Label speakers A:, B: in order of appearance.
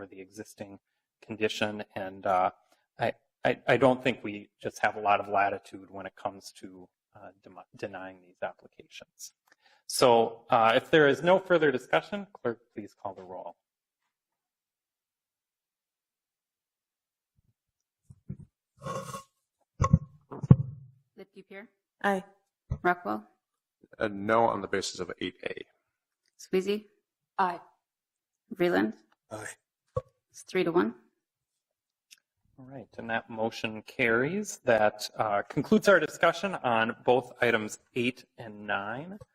A: for the existing condition. And uh, I, I, I don't think we just have a lot of latitude when it comes to uh, dem- denying these applications. So uh, if there is no further discussion, clerk, please call the roll.
B: Lipke Pier,
C: Aye.
B: Rockwell,
D: a no on the basis of 8A.
B: Squeezy,
C: Aye.
B: Vreeland.
D: Aye.
B: It's three to one.
A: All right, and that motion carries. That uh, concludes our discussion on both items eight and nine.